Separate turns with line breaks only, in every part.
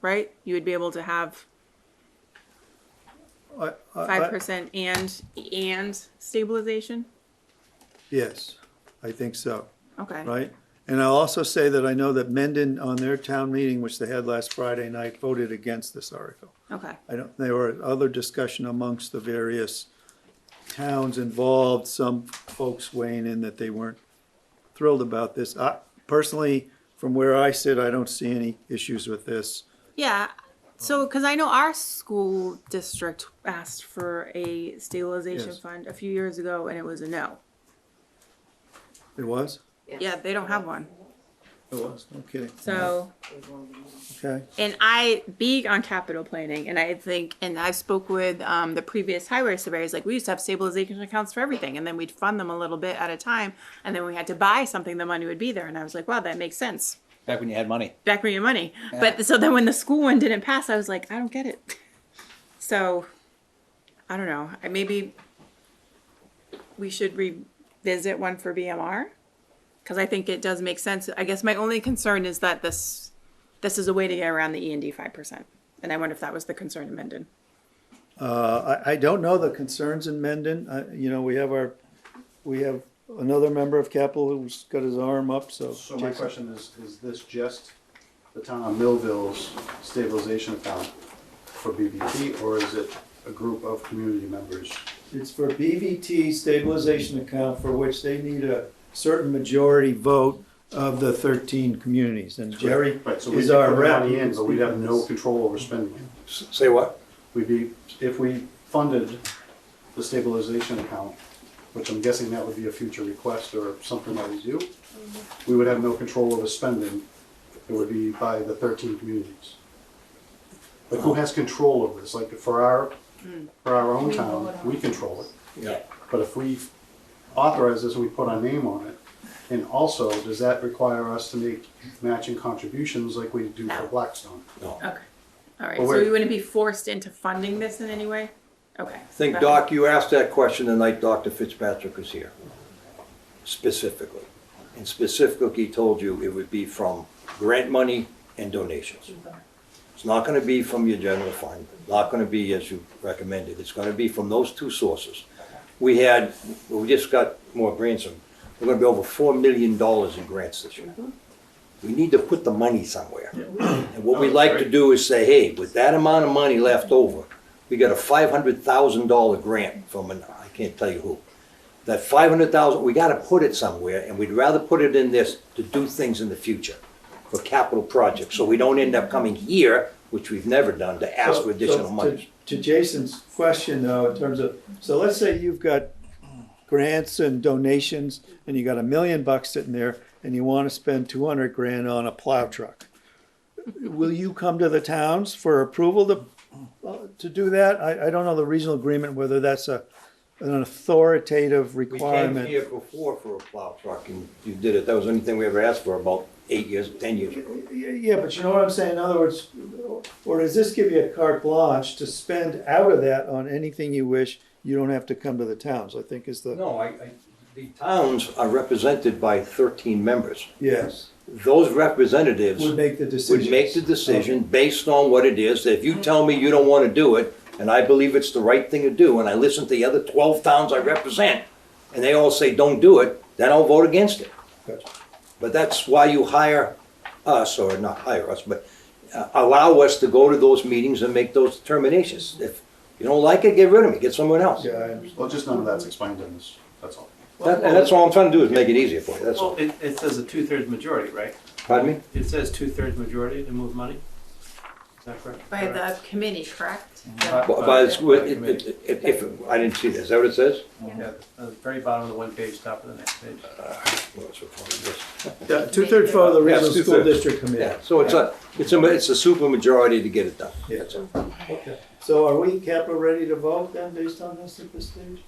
right? You would be able to have
I- I- I-
five percent and and stabilization.
Yes, I think so,
Okay.
right? And I'll also say that I know that Mendon, on their town meeting, which they had last Friday night, voted against this article.
Okay.
I don't, there were other discussion amongst the various towns involved, some folks weighing in that they weren't thrilled about this. I, personally, from where I sit, I don't see any issues with this.
Yeah. So, because I know our school district asked for a stabilization
Yes.
fund a few years ago, and it was a no.
It was?
Yeah, they don't have one.
It was, no kidding.
So,
Okay,
and I big on capital planning, and I think, and I spoke with um, the previous highway surveyors. Like we used to have stabilization accounts for everything, and then we'd fund them a little bit at a time, and then we had to buy something, the money would be there. And I was like, wow, that makes sense.
Back when you had money.
Back me your money. But so then when the school one didn't pass, I was like, I don't get it. So, I don't know. I- Maybe we should revisit one for BMR because I think it does make sense. I guess my only concern is that this this is a way to get around the E and D five percent, and I wonder if that was the concern in Mendon.
uh, I, I don't know the concerns in Mendon, uh, you know, we have our, we have another member of Capitol who's got his arm up, so.
So my
Jason.
question is, is this just the town of Millville's stabilization account for BBP, or is it a group of community members?
It's for BVT stabilization account for which they need a certain majority vote of the thirteen communities. And Jerry
Right, so we
is
could
our
put
rep.
money in, but we'd have no control over spending it.
Say what?
We'd be, if we funded the stabilization account, which I'm guessing that would be a future request or something that we do, we would have no control over spending. It would be by the thirteen communities. Like, who has control over this? Like, for our, for our own town, we control it.
Yeah.
But if we authorize this and we put our name on it, and also, does that require us to make matching contributions like we do for Blackstone?
No.
Okay, all right.
Well,
so
wait.
we wouldn't be forced into funding this in any way. Okay.
I think, Doc, you asked that question the night Dr. Fitzpatrick was here, specifically. And specifically, he told you it would be from grant money and donations. It's not gonna be from your general fund, not gonna be as you recommended, it's gonna be from those two sources. We had, we just got more grants, and we're gonna be over four million dollars in grants this year. We need to put the money somewhere. And what we like to do is say, hey, with that amount of money left over, we got a five hundred thousand dollar grant from an, I can't tell you who. That five hundred thousand, we gotta put it somewhere, and we'd rather put it in this to do things in the future for capital projects, so we don't end up coming here, which we've never done, to ask
So-
for additional
so
money.
To to Jason's question though, in terms of, so let's say you've got grants and donations and you got a million bucks sitting there and you want to spend two hundred grand on a plow truck. Will you come to the towns for approval to, uh, to do that? I, I don't know the regional agreement, whether that's a, an authoritative
We came
requirement.
here before for a plow truck, and you did it, that was the only thing we ever asked for about eight years, ten years ago.
Yeah, yeah, but you know what I'm saying? In other words, or does this give you a carte blanche to spend out of that on anything you wish? You don't have to come to the towns, I think is the,
No, I, I, the towns are represented by thirteen members.
yes,
Those representatives
would make the decision.
would make the decision based on what it is. If you tell me you don't want to do it, and I believe it's the right thing to do, and I listen to the other 12 towns I represent, and they all say, don't do it, then I'll vote against it.
Gotcha.
But that's why you hire us, or not hire us, but uh, allow us to go to those meetings and make those determinations. If you don't like it, get rid of me, get someone else.
Yeah, I understand.
Well, just none of that's explained in this, that's all.
That- And that's all I'm trying to do is make it easier for you, that's
Well,
all.
it, it says a two-thirds majority, right?
Pardon me?
It says two-thirds majority to move money? Is that correct?
By the committee, correct?
But- but it's-
by the
it-
committee.
it- If, if- I didn't see that, is that what it says?
Yeah, uh, very bottom of the one page, top of the next page.
Well, it's recorded, yes.
Yeah, two-thirds vote of the
Yeah,
regional school
two-thirds.
district committee.
Yeah, so it's a, it's a, it's a super majority to get it done.
Yeah.
That's all.
Okay. So are we, Capra, ready to vote then, based on this at this stage?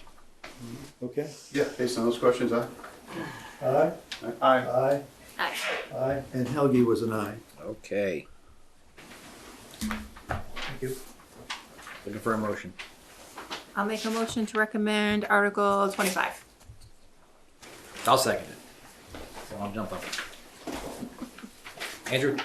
Okay,
Yeah, based on those questions, I.
aye,
Aye.
aye,
Aye.
aye, and Helgi was an aye.
Okay.
Thank you.
Looking for a motion.
I'll make a motion to recommend Article twenty-five.
I'll second it. So I'll jump up. Andrew?